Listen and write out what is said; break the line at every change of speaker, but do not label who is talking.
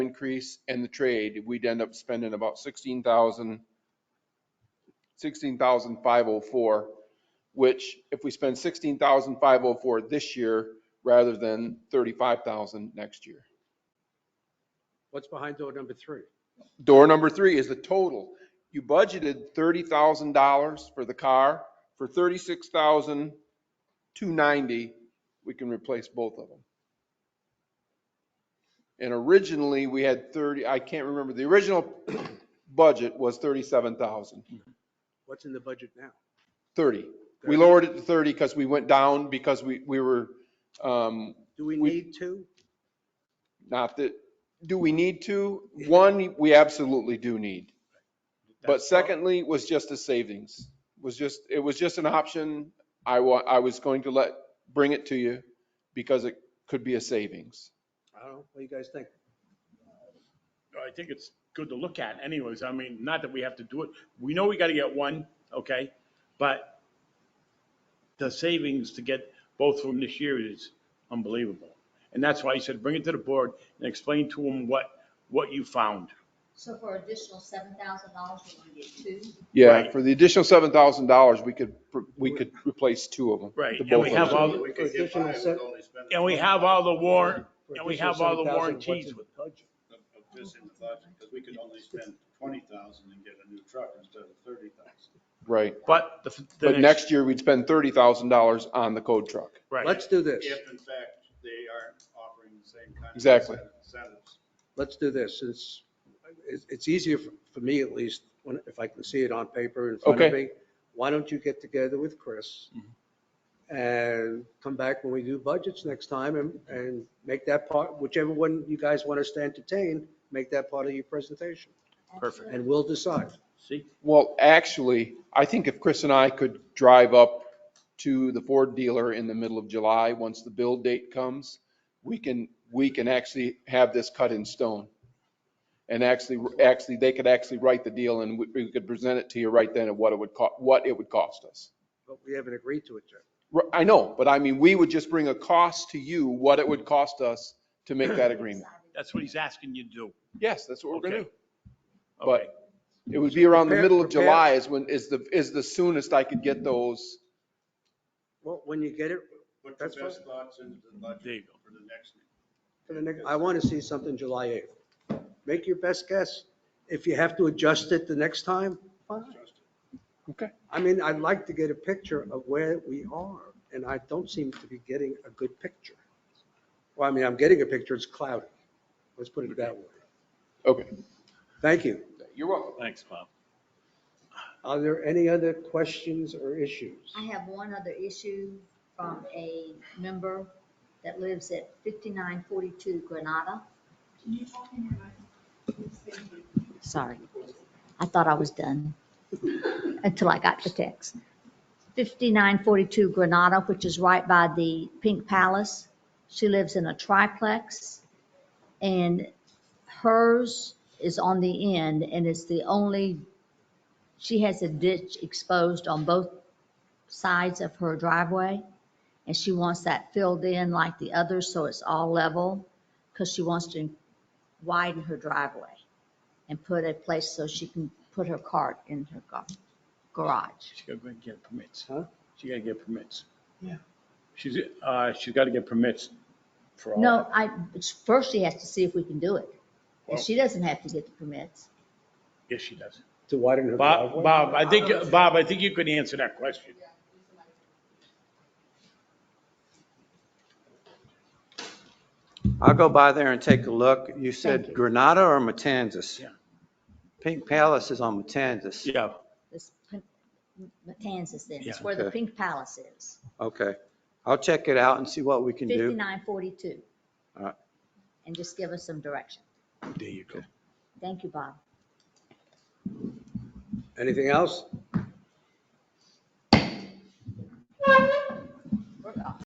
increase and the trade, we'd end up spending about sixteen thousand, sixteen thousand five oh four, which if we spend sixteen thousand five oh four this year rather than thirty-five thousand next year.
What's behind door number three?
Door number three is the total. You budgeted thirty thousand dollars for the car. For thirty-six thousand two ninety, we can replace both of them. And originally, we had thirty, I can't remember, the original budget was thirty-seven thousand,
What's in the budget now?
thirty. We lowered it to thirty because we went down because we, we were, um,
Do we
We-
need two?
not that, do we need to? One, we absolutely do need. But
That's-
secondly, was just a savings, was just, it was just an option. I wa, I was going to let, bring it to you because it could be a savings.
I don't know. What do you guys think?
I think it's good to look at anyways. I mean, not that we have to do it. We know we got to get one, okay? But the savings to get both from this year is unbelievable. And that's why I said, bring it to the board and explain to them what, what you found.
So for additional seven thousand dollars, we're gonna get two.
Yeah,
Right.
for the additional seven thousand dollars, we could, we could replace two of them.
Right,
the
and
both
we
of
have
them.
all- And we have all the warrant, and we have all the warranties with
Just in the budget, because we could only spend twenty thousand and get a new truck instead of thirty thousand.
Right,
but the. the
but next year we'd spend thirty thousand dollars on the code truck.
Right,
Let's do this.
If in fact they aren't offering the same kind of.
Exactly.
Incentives.
Let's do this. It's, it's- it's easier for for me at least, when, if I can see it on paper in front of
Okay.
me. Why don't you get together with Chris? And come back when we do budgets next time and, and make that part, whichever one you guys want us to entertain, make that part of your presentation.
Perfect.
And we'll decide.
see,
Well, actually, I think if Chris and I could drive up to the Ford dealer in the middle of July, once the build date comes, we can, we can actually have this cut in stone. And actually, actually, they could actually write the deal and we- we could present it to you right then of what it would cost, what it would cost us.
But we haven't agreed to it yet.
R- I know, but I mean, we would just bring a cost to you, what it would cost us to make that agreement.
that's what he's asking you to do.
Yes, that's what we're gonna do.
Okay.
But-
Okay,
It would be around the
Prepare-
middle of
prepare-
July is when, is the, is the soonest I could get those.
Well, when you get it,
Put your
That's fine.
best thoughts into the
There you
budget
go.
for the next.
for the next, I want to see something July 8th. Make your best guess. If you have to adjust it the next time, fine.
Okay.
I mean, I'd like to get a picture of where we are, and I don't seem to be getting a good picture. Well, I mean, I'm getting a picture, it's cloudy. Let's put it that way.
Okay.
Thank you.
You're welcome.
thanks, Bob.
Are there any other questions or issues?
I have one other issue from a member that lives at fifty-nine forty-two Granada. Sorry, I thought I was done until I got the text. Fifty-nine forty-two Granada, which is right by the Pink Palace. She lives in a triplex and hers is on the end and it's the only, she has a ditch exposed on both sides of her driveway, and she wants that filled in like the others, so it's all level, because she wants to widen her driveway and put a place so she can put her cart in her gar- garage.
She's got to get permits.
Huh?
She got to get permits.
Yeah.
She's, uh, she's got to get permits for all.
No, I, but first she has to see if we can do it, and she doesn't have to get the permits.
Yes, she does.
To widen her
Bob,
driveway?
Bob, I think, Bob, I think you could answer that question.
I'll go by there and take a look. You
Thank
said
you.
Granada or Matanzas?
Yeah.
Pink Palace is on Matanzas.
Yeah.
This Pin- Matanzas then, it's
Yeah.
where the
Okay.
Pink Palace is,
Okay. I'll check it out and see what we can do.
fifty-nine forty-two.
All right.
And just give us some direction.
There you go.
Thank you, Bob.
Anything else?
We're off.